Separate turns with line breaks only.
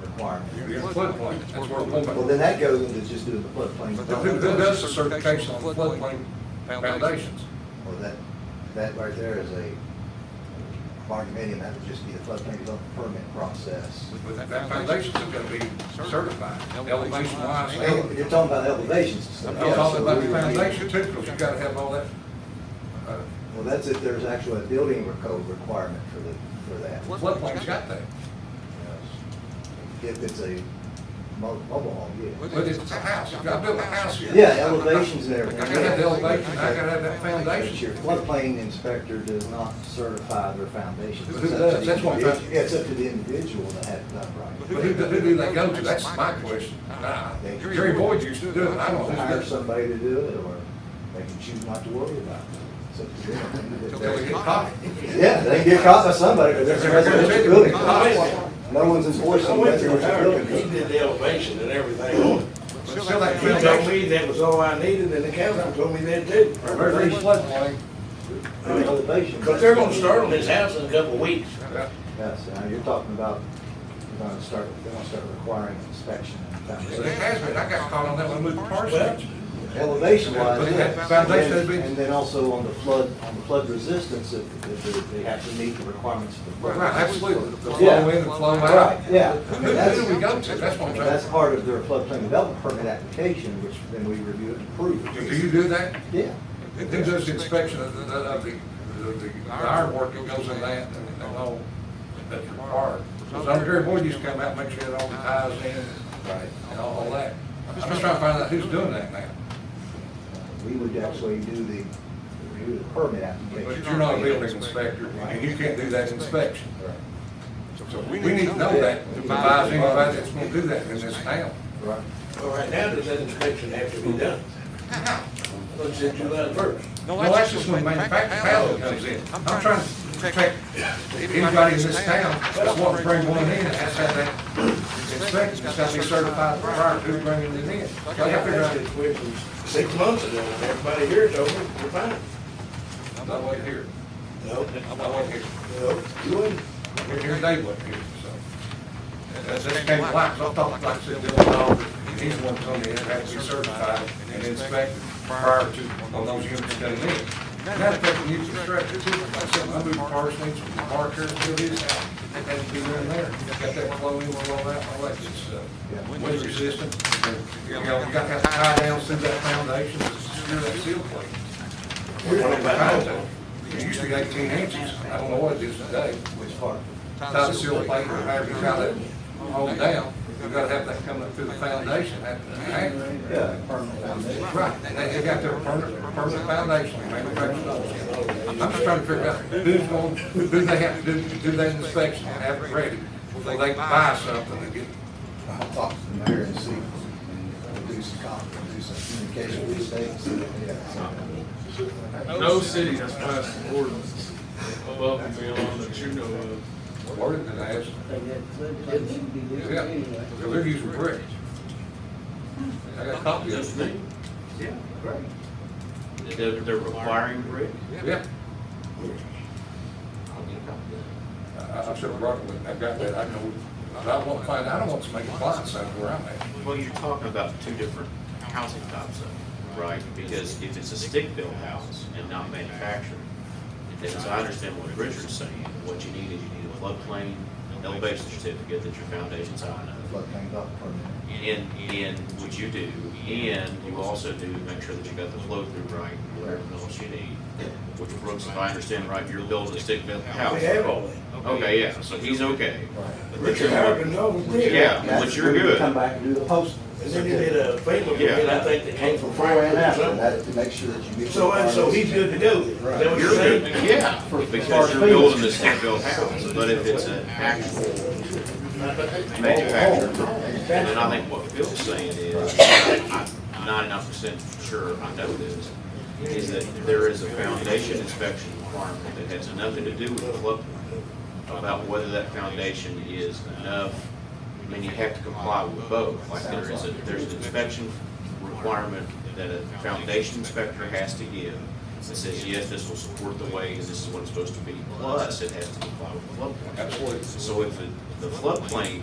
requirement.
You're in floodplain, that's where we're
Well, then that goes into just doing the floodplain.
But who, who does the certification on floodplain foundations?
Well, that, that right there is a, barn medium, that would just be the floodplain development permit process.
But that that foundation's gonna be certified, elevation wise.
Well, You're talking about elevations. and stuff.
I'm
Yeah,
talking
so
about
we
the
would need-
foundation too, because you gotta have all that. uh,
Well, that's if there's actually a building or code requirement for the, for that.
Floodplain's got that.
If it's a mo- mobile home, yeah.
But it's a house, I built a house here.
Yeah, elevations and
I
everything.
gotta have the elevation, I gotta have that
But your
foundation.
floodplain inspector does not certify their foundation.
Who does? That's what I'm-
It's up to the individual to have it done right.
But who, do- who do they go to? That's my question. Nah, Jerry Boyd used to do it, I don't know.
Hire
who's got-
somebody to do it, or they can choose not to worry about it. It's up to them.
Until they get caught.
Yeah, they get caught by somebody, but there's a residential building. No one's
I
enforcing
went to
residential
America, he
building.
did the elevation and everything on it.
But
They
still that
told
foundation,
me that was all I needed, and the council told me that too.
every floodplain,
The elevation.
But they're gonna start on this house in a couple of weeks.
uh,
Yes, now you're talking about, you're gonna start, they're gonna start requiring inspection and
It
foundation.
has been, I got caught on that one with the
Well,
parsonage.
Elevation wise,
But that
yes. And
foundation has
then-
been-
and then also on the flood, on the flood resistance, if, if they- they have to meet the requirements for the flood.
Right, absolutely, the
Yeah.
flow in, the flow
Right,
out.
yeah.
Who,
I mean,
who do we
That's,
go to? That's what I'm
that's
saying.
part of their floodplain development permit application, which then we review it and approve.
Do do you do that?
Yeah.
Who does the inspection of the, of the, of the iron work that goes in that and and all that's required? Because I'm very bored, you just come out, and make sure that all the ties in
Right.
and all of that. I'm just trying to find out who's doing that now.
We would actually do the, review the permit application.
But you're not a building inspector, and you can't do that inspection.
Right.
So we need to know that, to advise anybody that's gonna do that in this town.
Right.
Well, right now, does that inspection have to be done? Let's say July first.
No, that's just when manufacturing comes in. I'm trying to protect anybody in this town that's wanting to bring one in, and has to have that inspected, it's got to be certified prior to bringing it in. So I
I
gotta figure
asked this
out,
question six months ago, and everybody here told me, you're fine.
I wasn't here,
No,
I wasn't here,
no, you wouldn't.
here, here Dave wasn't here, so. And That's, that's came to light, 'cause I thought, like I said, the other dog, he's the one told me it had to be certified and inspected prior to, on those units coming in. And That affected new construction too, like I said, I moved parsonage, from Parker, to this house, it had to be in there, got that flowing, all that, all that good stuff.
Yeah.
wind resistant, and, you know, you got that tie down through that foundation, to secure that seal plate.
We're talking about that.
It used to be eighteen inches, I don't know what it is today.
Which part?
Tie the seal plate, or however you tie that, hold down, you gotta have that coming up through the foundation, that, that.
Yeah, permanent foundation.
Right, and they, they got their permanent, permanent foundation, manufactured those. I'm just trying to figure out who's going, who do they have to do, do that inspection and have it ready, before they buy something and get
I'll talk to the mayor and see, and do some con, do some communication with the state, and see if they have something.
No city has passed an ordinance above and beyond that you know of.
worded and asked. Yeah, they're using bricks. I got a copy of it.
They're, they're requiring brick?
Yeah, I, I should have brought it with me, I got that, I know, but I won't find, I don't want to make a blind side where I'm at.
Well, you're talking about two different housing types, though, right? Because if it's a stick-built house and not manufactured, then as I understand what Richard's saying, what you need is you need a floodplain elevation certificate that your foundation's high enough.
Floodplain development permit.
And, and what you do, and you also do make sure that you got the flow through right, whatever else you need. Which Brooks, if I understand right, you're building a stick-built house.
We have all that.
Okay, yeah, so he's okay.
Richard Howard, no, was there.
Yeah. Well,
That's
you're
when we
good.
Come back and do the post.
And then you did a paper,
Yeah.
and I think that came from
Before and
Franklin or
after,
something.
that, to make sure that you get.
So, and so he's good to go. Is that what you're
You're
saying?
good, yeah, because you're building this stick-built house, but if it's an actual manufactured, and then I think what Phil's saying is, I'm ninety-nine percent sure I know this, is that there is a foundation inspection requirement that has nothing to do with the flood plain, about whether that foundation is enough, I mean, you have to comply with both, like there is a, there's an inspection requirement that a foundation inspector has to give that says, yes, this will support the way, and this is what it's supposed to be, plus it has to comply with the floodplain.
Absolutely.
So if the- the floodplain